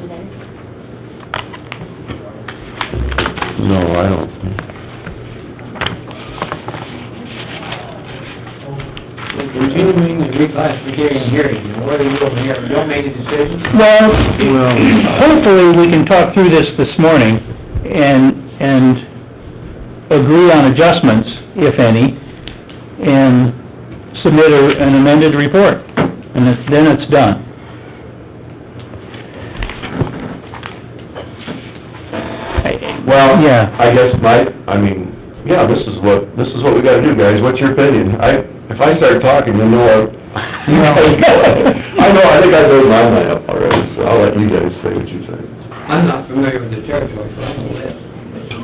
today? No, I don't. think. Continuing the reclassification hearing, and whether you over here, don't make a decision, Well, Well- hopefully, we can talk through this this morning and, and agree on adjustments, if any, and submit a- an amended report, and it- then it's done. Well, Yeah. I guess my, I mean, yeah, this is what, this is what we gotta do, guys, what's your opinion? I, if I start talking, you'll know I... No. I know, I think I've made my mind up already, so I'll let you guys say what you think. I'm not familiar with the territory, so I don't know that.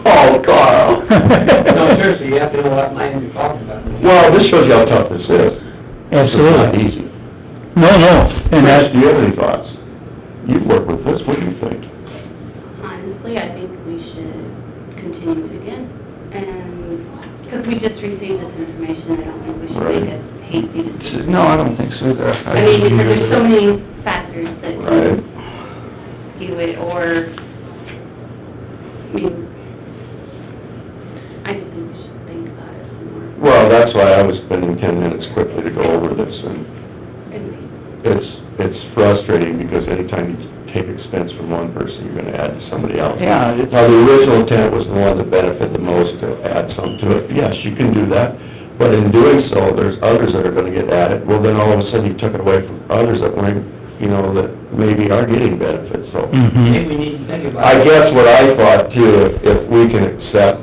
Oh, Carl! No, seriously, you have to know what land you're talking about. Well, this shows you how tough this is. It's not Absolutely. easy. No, no, and Chris, that, do you have any thoughts? You've worked with this, what do you think? Honestly, I think we should continue it again, and, because we just received this information, I don't think we should make a hasty decision. No, I don't think so either. I mean, because there's so many factors that Right. can do it, or, I mean, I just think we should think about it some more. Well, that's why I was spending ten minutes quickly to go over this, and And it's, it's frustrating, because anytime you take expense from one person, you're gonna add to somebody else. Yeah, it's- Now, the original intent was the one that benefited the most to add some to it, yes, you can do that, but in doing so, there's others that are gonna get added, well, then all of a sudden, you took it away from others that weren't, you know, that maybe are getting benefits, so. Maybe mhm, we need to think about I it. guess what I thought too, if- if we can accept,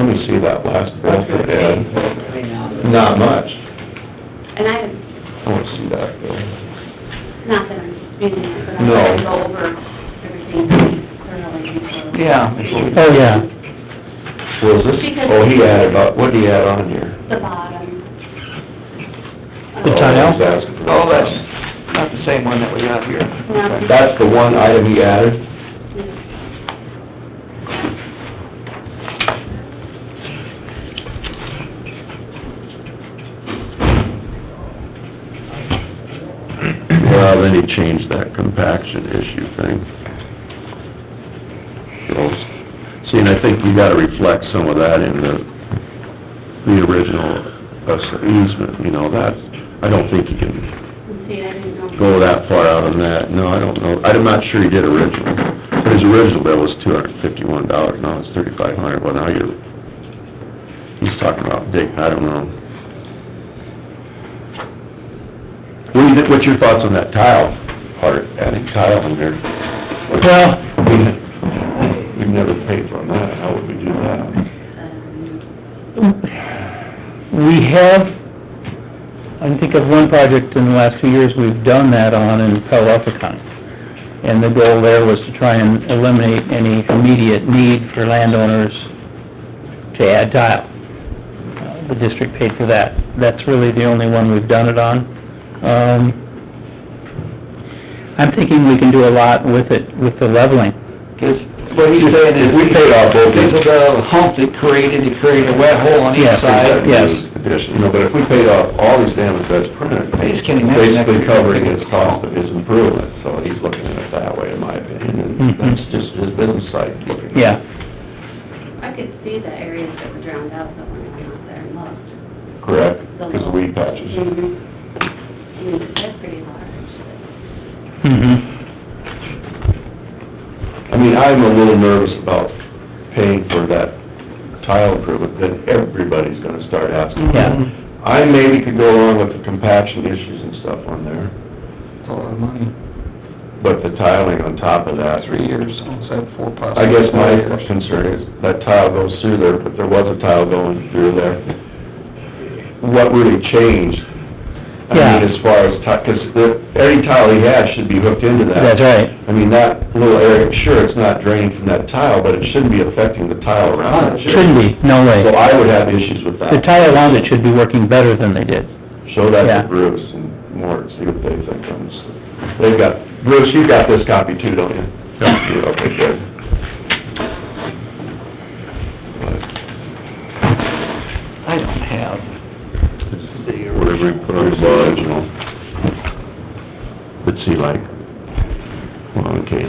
let me see that last What's benefit, Ed. gonna change right now? Not much. I, I want to see that. Ed. not that I'm speaking, but I'm No. trying to go over everything thoroughly. so- Yeah. Oh, yeah. Was this, oh, he added about, what did he add on here? The bottom. Oh, The Um, tile? he's asking for- Oh, that's not the same one that we got here. No. That's the one item he added? Well, then he changed that compaction issue thing. Gross. See, and I think you gotta reflect some of that in the, the original us- easement, you know, that, I don't think you can See, I didn't know. go that far out on that, no, I don't know, I'm not sure he did original. His original bill was two hundred and fifty-one dollars, now it's thirty-five hundred, well, now you're, he's talking about dig, I don't know. What do you, thi- what's your thoughts on that tile, Art, adding tile in there? Well- We- We've never paid for that, how would we do that? Um, we have, I can think of one project in the last few years we've done that on in Pelican. And the goal there was to try and eliminate any immediate need for landowners to add tile. Uh, The district paid for that. That's really the only one we've done it on. Um, I'm thinking we can do a lot with it, with the leveling. Because what he's saying is, We paid off both. because of the hump that created, it created a wet hole on each Yes, side. yes. Addition, you know, but if we paid off all these damages that's printed, I just can't imagine that basically could- covering his cost of his improvement, so he's looking at it that way, in my opinion, and Mhm. that's just his business side looking. at it. Yeah, I could see the areas that were drowned out, but when I went out there and looked. Correct, the because little- of weed patches. Mhm. I mean, that's pretty large. mhm. I mean, I'm a little nervous about paying for that tile improvement, then everybody's gonna start asking. Yeah. I maybe could go along with the compaction issues and stuff on there, It's a lot of money, but the tiling on top of that. three years, almost had four possible. I guess my concern is that tile goes through there, but there was a tile going through there. What really changed? I Yeah. mean, as far as, because every tile he has should be hooked into that. That's right. I mean, that little area, sure, it's not draining from that tile, but it shouldn't be affecting the tile around it. should it? Shouldn't be, no way. So I would have issues with that. The tile around it should be working better than they did. Show that Yeah. to Bruce and Mort, see what they think on this. They've got, Bruce, you got this copy too, don't you? Yeah. Yeah, Okay, good. I don't have the Whatever you put on the original. But see, like, well, okay,